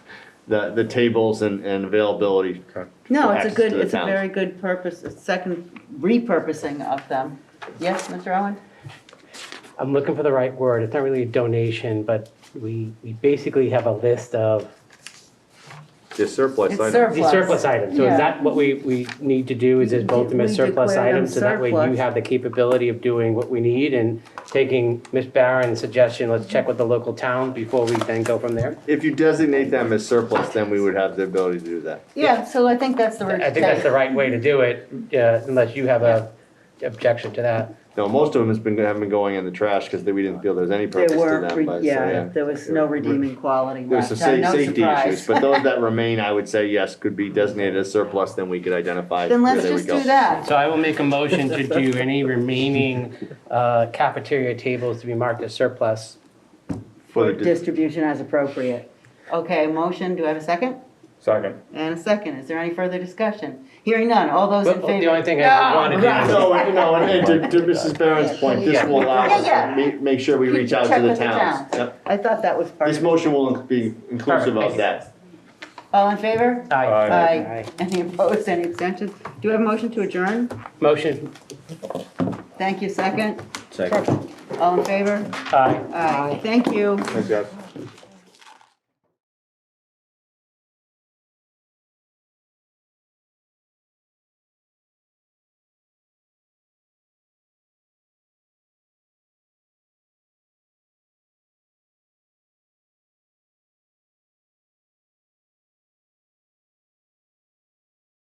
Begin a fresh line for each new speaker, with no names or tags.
the, the tables and, and availability.
No,
for
it's a
access
good,
to the
it's a
towns.
very good purpose, a second repurposing of them. Yes, Mr. Owen?
I'm looking for the right word. It's not really a donation, but we, we basically have a list of
The surplus
It's
item.
surplus.
these surplus items. So
Yeah.
is that what we, we need to do, is it vote them as
We
surplus
declare them
items? So that way you
surplus.
have the capability of doing what we need and taking Ms. Barron's suggestion, let's check with the local town before we then go from there?
If you designate them as surplus, then we would have the ability to do that.
Yeah, so I think that's the word.
I think that's the right way to do it, uh, unless you have a objection to that.
No, most of them has been, have been going in the trash because we didn't feel there's any
There
purpose to
were,
them.
re-
but, so,
yeah, there was no redeeming quality
There's
left,
some
no
sa- safety issues,
surprise.
but those that remain, I would say, yes, could be designated as surplus, then we could identify.
Then
where
let's
they would
just
go.
do that.
So I will make a motion to do any remaining uh, cafeteria tables to be marked as surplus.
For the, dis-
Distribution as appropriate. Okay, motion, do I have a second?
Second.
And a second, is there any further discussion? Hearing none, all those in
But
favor? Ah,
the only thing I want to do is
no, and- no, and and to, to Mrs. Barron's point, this will allow us
Yeah,
to ma- make sure we reach out
Check
to the
with the
towns.
towns.
Yep.
I thought that was part
This
of it.
motion will be inclusive of
Perfect.
that.
All in favor?
Aye.
Aye. Any opposed, any abstentions? Do we have a motion to adjourn?
Motion,
Thank you, second.
Second.
All in favor?
aye.
Aye, thank you.
Thanks, guys.